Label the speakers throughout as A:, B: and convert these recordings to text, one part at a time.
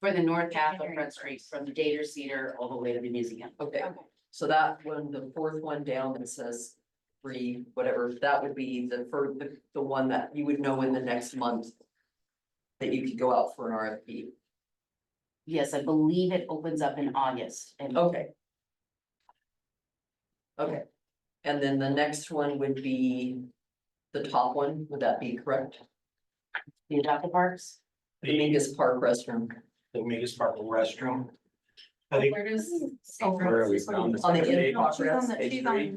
A: for the north half of Front Street, from the Dater Cedar all the way to the museum.
B: Okay,
C: Okay.
B: so that one, the fourth one down that says three, whatever, that would be the for the the one that you would know in the next month. That you could go out for an RFP.
A: Yes, I believe it opens up in August and
B: Okay. Okay, and then the next one would be the top one, would that be correct?
A: the adopted parks.
B: The Mingus Park restroom
D: the Mingus Park restroom. I think
C: Where does?
D: Where are we found this?
B: on the
D: Page
B: in progress.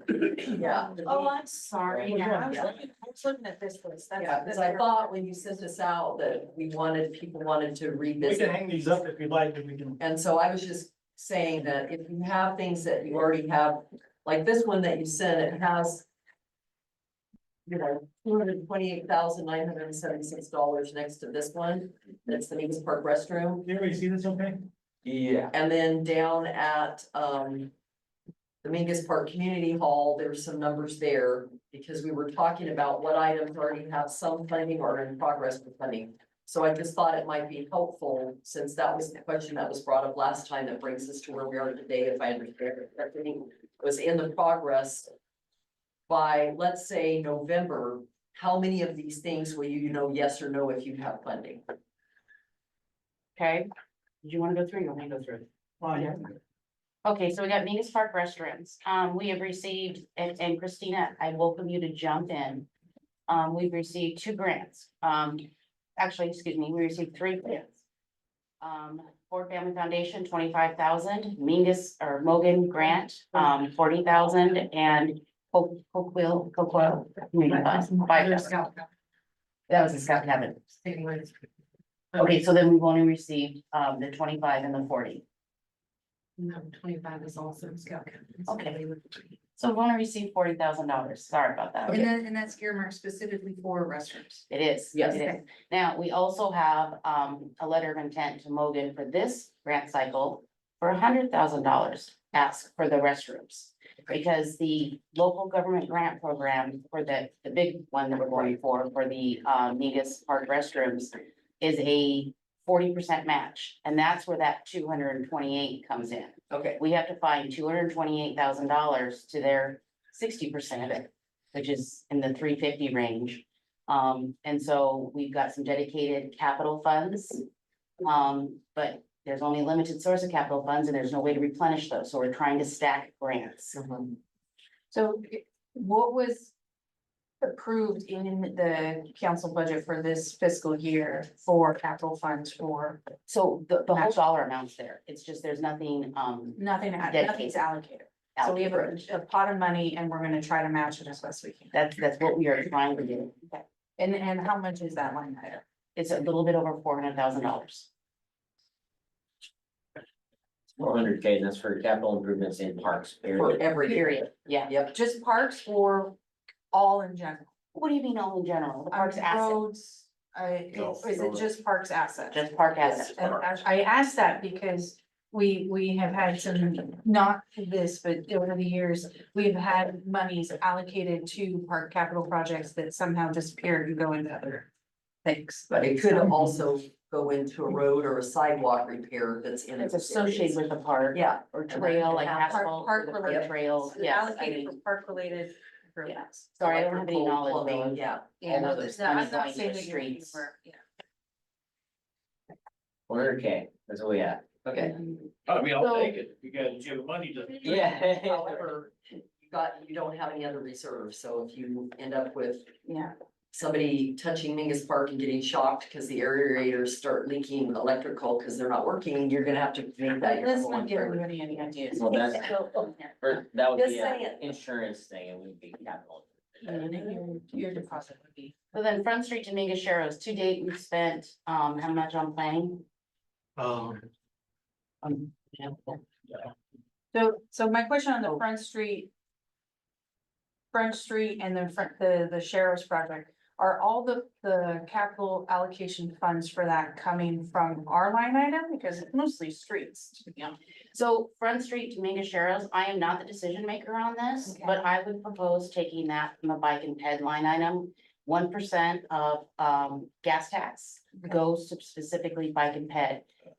D: three.
B: Yeah,
C: Oh, I'm sorry.
A: Yeah.
C: Yeah, I was looking- I was looking at this list. That's-
B: yeah, because I thought when you sent this out that we wanted, people wanted to
E: We can
B: revisit.
E: hang these up if you'd like, and we can.
B: And so I was just saying that if you have things that you already have, like this one that you sent, it has. You know, two hundred and twenty-eight thousand nine hundred and seventy-six dollars next to this one, that's the Mingus Park restroom.
E: Can everybody see this okay?
D: Yeah,
B: And then down at, um. The Mingus Park Community Hall, there were some numbers there, because we were talking about what items already have some funding or in progress with funding. So I just thought it might be helpful, since that was the question that was brought up last time, that brings us to where we are today, if I understand it correctly, was in the progress. By, let's say, November, how many of these things will you know yes or no if you have funding?
A: Okay, do you want to go through? You want me to go through?
E: Fine.
A: Okay, so we got Venus Park restaurants. Um, we have received, and and Christina, I welcome you to jump in. Um, we've received two grants. Um, actually, excuse me, we received three grants. Um, Ford Family Foundation, twenty-five thousand, Mingus or Mogan Grant, um, forty thousand, and Hope, Hopewell, Hopewell. Community Fund, uh, five thousand. That was a Scott Cabin. Okay, so then we've only received, um, the twenty-five and the forty.
C: No, twenty-five is also scout.
A: Okay. So we've only received forty thousand dollars, sorry about that.
C: And that, and that's earmarked specifically for restrooms.
A: It is.
B: Yes.
A: It is. Now, we also have um a letter of intent to Mogan for this grant cycle for hundred thousand dollars. Ask for the restrooms. Because the local government grant program for the, the big one that we're going for, for the uh Negus Park restrooms is a forty percent match. And that's where that two hundred and twenty-eight comes in.
B: Okay,
A: We have to find two hundred and twenty-eight thousand dollars to their sixty percent of it, which is in the three fifty range. Um, and so we've got some dedicated capital funds. Um, but there's only a limited source of capital funds and there's no way to replenish those, so we're trying to stack grants.
B: Mhm.
C: So what was approved in the council budget for this fiscal year for capital funds for
A: So the, the whole dollar amount's there, it's just there's nothing, um.
C: nothing,
A: Dedicated.
C: nothing's allocated? So we have a
A: allocated.
C: a pot of money and we're gonna try to match it as best we can.
A: That's, that's what we are trying to do.
C: And, and how much is that line item?
A: It's a little bit over four hundred thousand dollars.
F: Four hundred K, that's for capital improvements in parks.
B: for
F: period.
B: every area,
A: Period, yeah.
B: yep.
C: Just parks or all in general?
A: What do you mean all in general? The park's
C: Um,
A: asset,
C: Roads, uh,
D: No,
C: is it
D: roads.
C: just parks assets?
A: just park asset.
C: And I- I asked that because we, we have had some, not this, but over the years, we've had monies allocated to park capital projects that somehow disappear and go into other things.
B: But it could also go into a road or a sidewalk repair that's in.
A: It's
B: those
A: associated
B: areas.
A: with the park
B: Yeah,
A: or
B: that
A: trail,
B: can
A: like
B: happen.
A: asphalt,
C: Park-
A: the
C: park
A: park
C: related.
A: trails, yes, I
C: Allocated
A: mean,
C: for park related. improvements.
A: sorry, I don't have any
B: Electrical,
A: knowledge.
B: plumbing,
A: Megan.
B: Yeah,
C: Yeah,
A: All
C: no,
A: of those
C: no, I'm
A: monies
C: not
A: going to
C: saying
A: the
C: that you're-
A: streets.
C: you're- yeah.
F: Four hundred K, that's what we have.
B: okay.
A: Mm-hmm.
G: I mean, I'll
A: So-
G: take it, because you have money to.
F: Yeah.
B: However, you got, you don't have any other reserves, so if you end up with
C: Yeah,
B: somebody touching Mingus Park and getting shocked because the aerators start leaking electrical because they're not working, you're gonna have to make that. your
C: let's
B: number one
C: not give
B: priority.
C: anybody any ideas.
F: Well, that's, for- that would
B: Just
F: be
B: saying.
F: an insurance thing, it wouldn't be capital.
A: Mm-hmm.
C: And then Your your deposit would be.
A: So then Front Street Dominguez Sharrows, to date, we've spent, um, how much on planning?
D: um,
A: Um, yeah.
C: So, so my question on the Front Street. Front Street and then front, the, the sheriff's project, are all the, the capital allocation funds for that coming from our line item? Because it's mostly streets, to be honest.
A: So Front Street Dominguez Sharrows, I am not the decision maker on this,
C: Okay.
A: but I would propose taking that from the bike and ped line item. One percent of, um, gas tax goes to specifically bike and ped.